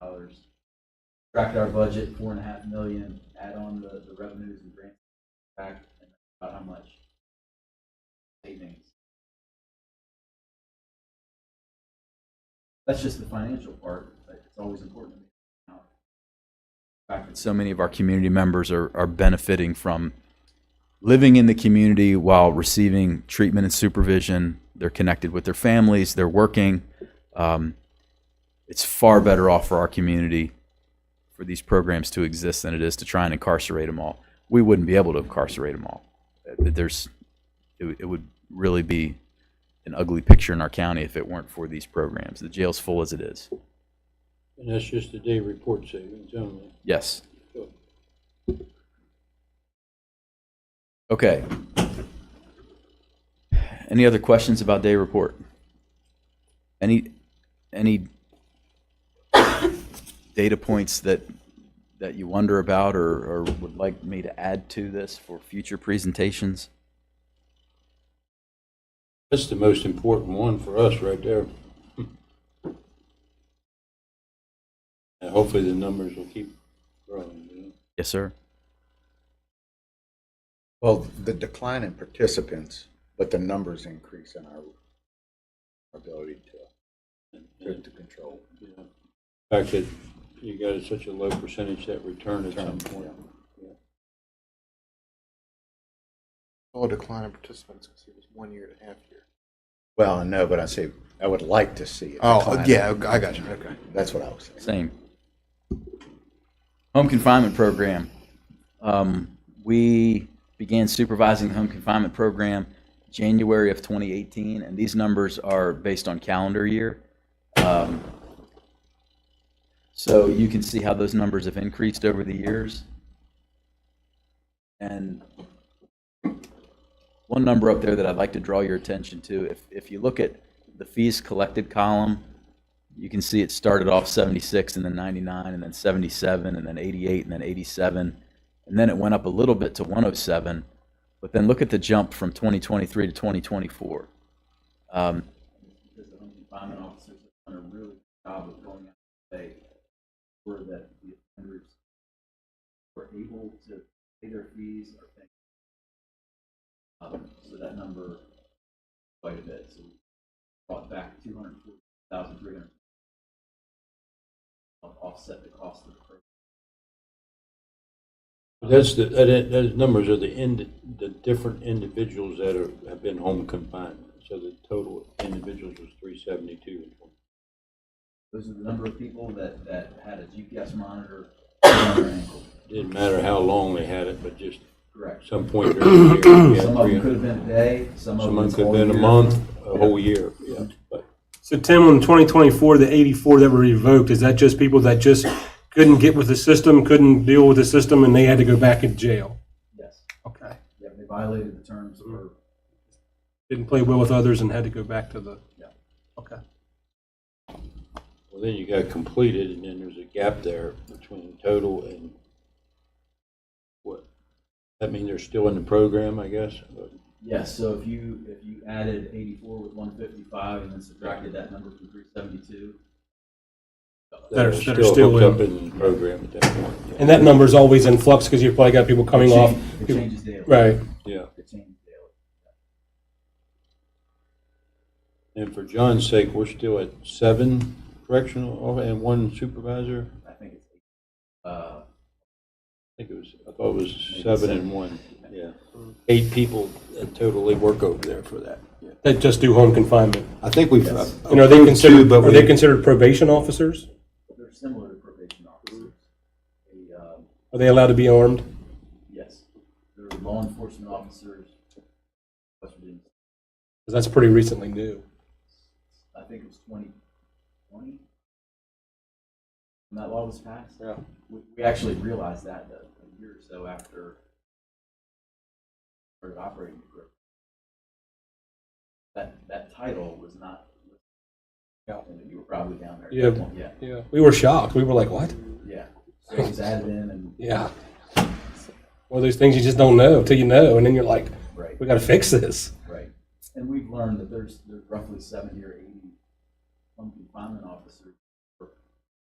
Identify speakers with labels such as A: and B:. A: dollars. Tracked our budget, four and a half million, add on the, the revenues and grants back, and about how much? Savings. That's just the financial part, but it's always important to me. The fact that so many of our community members are, are benefiting from living in the community while receiving treatment and supervision. They're connected with their families, they're working. Um, it's far better off for our community for these programs to exist than it is to try and incarcerate them all. We wouldn't be able to incarcerate them all. Uh, There's, it, would- it would really be an ugly picture in our county if it weren't for these programs. The jail's full as it is.
B: And that's just the day report savings only.
A: Yes. Okay. Any other questions about day report? Any, any data points that, that you wonder about or, or would like me to add to this for future presentations?
B: That's the most important one for us right there. And hopefully the numbers will keep growing, you know?
A: Yes, sir.
C: Well, the decline in participants, but the numbers increase in our ability to, to- to control.
B: You know, The fact that you got such a low percentage that return at some point.
D: Oh, decline in participants because it was one year and a half year.
C: Well, I know, but I say, I would like to see it. decline.
D: Oh, I got you. Okay.
C: That's what I was
A: Same.
C: saying.
A: Home confinement program. Um, we began supervising the home confinement program January of 2018, and these numbers are based on calendar year. Um, so you can see how those numbers have increased over the years. And one number up there that I'd like to draw your attention to, if, if you look at the fees collected column, you can see it started off 76 and then 99 and then 77 and then 88 and then 87 and then it went up a little bit to 107 but then look at the jump from 2023 to 2024 um, because the home confinement officers have done a really good job of going out and say where that the offenders were able to pay their fees or pay. Um, so that number quite a bit. So we brought back 240,300 help offset the cost of the program.
B: But That's the, that, is- those numbers are the end, the different individuals that are, have been home confined. So the total individuals was three seventy-two.
A: Those are the number of people that, that had a GPS monitor on their ankle.
B: Didn't matter how long they had it, but just
A: Correct.
B: some point during the year. we had
A: Some of
B: three-
A: them could have been a day, some of them.
B: Someone could
A: all
B: have been a
A: year.
B: month, a whole year, yeah. But
E: So Tim, on 2024, the 84 that were revoked, is that just people that just couldn't get with the system, couldn't deal with the system, and they had to go back in jail?
A: Yes,
E: Okay.
A: yeah, they violated the terms or
E: Didn't play well with others and had to go back to the,
A: Yeah.
E: okay.
B: well, then you got completed, and then there's a gap there between total and what? That means they're still in the program, I guess? But
A: Yes, so if you, if you added eighty-four with one fifty-five and then subtracted that number from three seventy-two,
E: That are- that are still
B: hooked
E: in.
B: up in the program at that point. yeah.
E: And that number's always in flux because you've probably got people coming off.
A: it changes daily.
E: Right.
B: Yeah,
A: It changes daily.
B: and for John's sake, we're still at seven correctional off- and one supervisor?
A: I think it's, uh,
B: I think it was, I thought it was
A: Maybe
B: seven
A: seven.
B: and one, yeah. Eight people that totally work over there for that, yeah.
E: That just do home confinement.
B: I think we've.
E: And are they considered, are they considered probation officers?
A: they're similar to probation officers. They, um,
E: Are they allowed to be armed?
A: Yes, there are law enforcement officers, West Virginia,
E: 'Cause that's pretty recently new.
A: I think it was twenty twenty. When that law was passed,
B: Yeah.
A: we, we actually realized that uh, a year or so after started operating the group. That, that title was not,
E: Yeah.
A: and you were probably down there. at
E: Yeah.
A: that point, Yeah,
E: Yeah. We were shocked. We were like, what?
A: yeah, so it was added in and,
E: Yeah. One of those things you just don't know till you know, and then you're like,
A: right.
E: we got to fix this.
A: Right. And we've learned that there's, there's roughly seventy or eighty home confinement officers